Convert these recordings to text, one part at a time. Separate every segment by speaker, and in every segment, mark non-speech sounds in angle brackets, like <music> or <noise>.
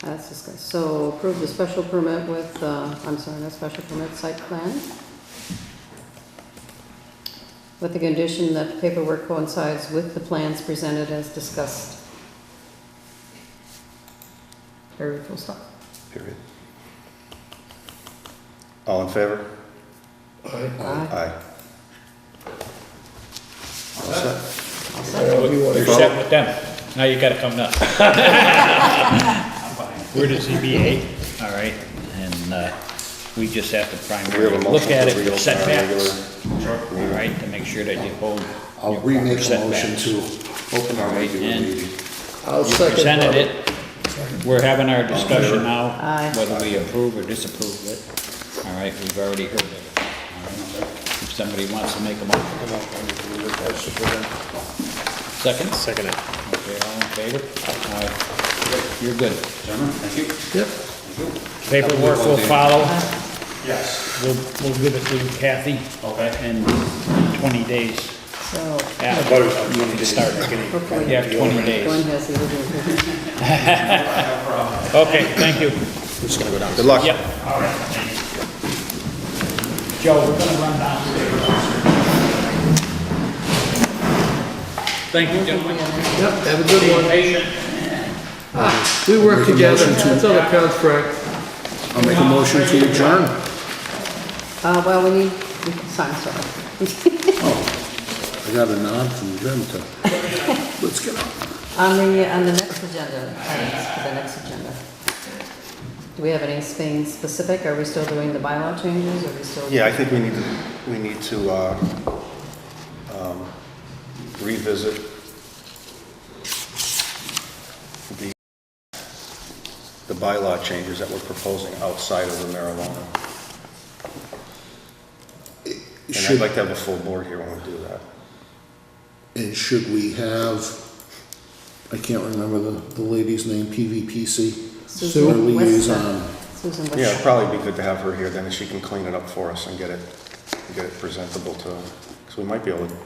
Speaker 1: That's discussed. So approve the special permit with, uh, I'm sorry, not special permit, site plan. With the condition that the paperwork coincides with the plans presented as discussed. Very full stop.
Speaker 2: Period. All in favor?
Speaker 1: Aye.
Speaker 2: Aye. All set?
Speaker 3: You're set with them. Now you gotta come to us. <laughs> We're the ZBA, all right, and, uh, we just have to
Speaker 2: We have a
Speaker 3: primarily
Speaker 2: motion.
Speaker 3: look at
Speaker 2: for
Speaker 3: it,
Speaker 2: regular-
Speaker 3: for setbacks,
Speaker 2: regular-
Speaker 3: all right, to make sure that you hold.
Speaker 4: I'll
Speaker 3: your
Speaker 4: remake a
Speaker 3: setbacks.
Speaker 4: motion to open our
Speaker 3: Right,
Speaker 4: regular
Speaker 3: and-
Speaker 4: meeting.
Speaker 5: I'll
Speaker 3: You
Speaker 5: second
Speaker 3: presented
Speaker 5: that.
Speaker 3: it, we're having our discussion
Speaker 1: Aye.
Speaker 3: now, whether we approve or disapprove it. All right, we've already heard it. All right, If somebody wants to make a motion, second? Second it. Okay, all in favor? All right, you're good.
Speaker 6: Gentlemen, thank you.
Speaker 5: Yep.
Speaker 3: Paperwork will follow,
Speaker 6: Yes.
Speaker 3: we'll, we'll give it to Kathy.
Speaker 6: Okay.
Speaker 3: In twenty days
Speaker 1: So
Speaker 3: after you can start.
Speaker 1: hopefully.
Speaker 3: You have twenty
Speaker 1: Glenn
Speaker 3: days.
Speaker 1: has the original paper.
Speaker 3: Okay, thank you.
Speaker 2: Good luck.
Speaker 3: Yep. All right. Joe, we're gonna run downstairs. Thank you, gentlemen.
Speaker 5: Yep, have a good
Speaker 3: Be
Speaker 5: one.
Speaker 3: patient.
Speaker 5: We work together, that's on the contract.
Speaker 4: I'll make a motion to adjourn.
Speaker 1: Uh, well, we need, we can sign, sorry.
Speaker 4: I got a nod from Jim to, let's get on.
Speaker 1: On the, on the next agenda, items for the next agenda. Do we have anything specific? Are we still doing the bylaw changes? Are we still?
Speaker 2: Yeah, I think we need to, we need to uh, um, revisit the, the bylaw changes that we're proposing outside of the marijuana. And I'd
Speaker 4: Should,
Speaker 2: like to have a full board here when we do that.
Speaker 4: and should we have, I can't remember the, the lady's name, PVPC?
Speaker 1: Susan
Speaker 4: Our
Speaker 1: Weston.
Speaker 5: um,
Speaker 4: liaison.
Speaker 1: Susan
Speaker 2: Yeah, it'd
Speaker 1: West.
Speaker 2: probably be good to have her here, then she can clean it up for us and get it, get it presentable to, because we might be able to,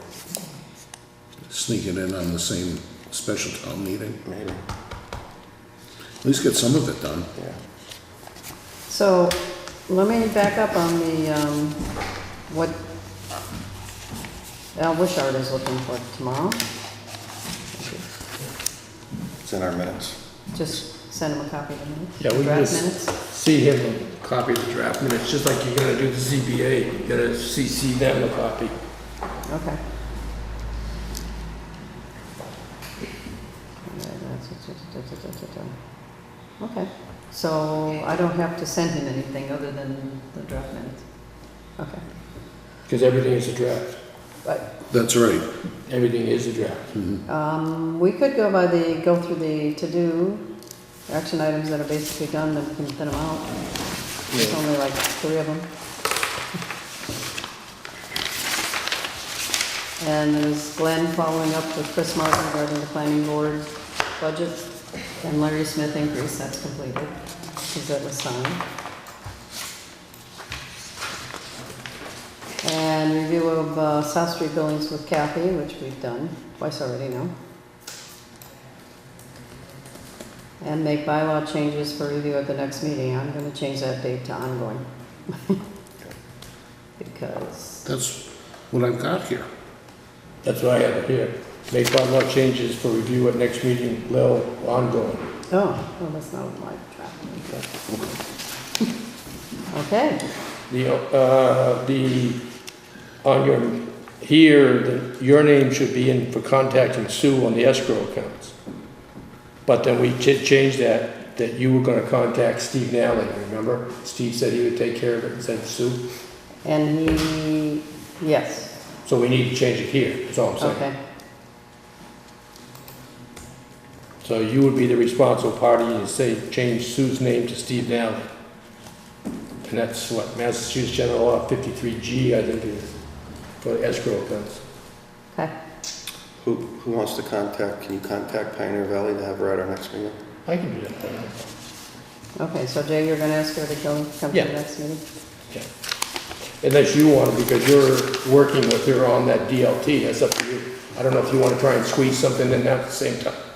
Speaker 4: Sneaking in on the same special town meeting.
Speaker 2: maybe,
Speaker 4: At least get some of it done.
Speaker 2: yeah.
Speaker 1: So let me back up on the, um, what Al Wishart is looking for tomorrow.
Speaker 2: It's in our minutes.
Speaker 1: Just send him a copy of the minutes.
Speaker 5: Yeah, we can
Speaker 1: Draft
Speaker 5: just-
Speaker 1: minutes.
Speaker 5: See him, and copy the draft minutes, just like you're gonna do the ZBA, you gotta CC them a copy.
Speaker 1: Okay. Yeah, that's it, da, da, da, da, da, da. Okay, so I don't have to send him anything other than the draft minutes. Okay,
Speaker 5: Because everything is a draft.
Speaker 1: but,
Speaker 4: That's right.
Speaker 5: Everything is a draft.
Speaker 1: um, we could go by the, go through the to-do, action items that are basically done, then we can thin them out. There's only like three of them. And there's Glenn following up with Chris Martin regarding the planning board budget, and Larry Smith increase, that's completed, because that was signed. And review of uh, South Street buildings with Kathy, which we've done twice already now. And make bylaw changes for review at the next meeting, I'm gonna change that date to ongoing. <laughs> Because,
Speaker 4: That's what I've got here.
Speaker 5: That's what I have here. Make bylaw changes for review at next meeting, Lil, ongoing.
Speaker 1: oh, well, that's not my draft. Okay,
Speaker 5: The, uh, the, on your, here, the- your name should be in for contacting Sue on the escrow accounts. But then we ch- changed that, that you were gonna contact Steve Nally, remember? Steve said he would take care of it and send Sue.
Speaker 1: and he, yes,
Speaker 5: So we need to change it here, that's all I'm saying.
Speaker 1: okay,
Speaker 5: So you would be the responsible party and say, change Sue's name to Steve Nally. And that's what Massachusetts General Law fifty-three G, I think it is, for escrow accounts.
Speaker 1: okay.
Speaker 2: Who, who wants to contact, can you contact Pioneer Valley to have her at our next meeting?
Speaker 5: I can do that.
Speaker 1: Okay, so Jay, you're gonna ask her to go, come to
Speaker 5: Yeah.
Speaker 1: the next meeting?
Speaker 5: Unless you want to, because you're working with her on that DLT, that's up to you. I don't know if you want to try and squeeze something in at the same time.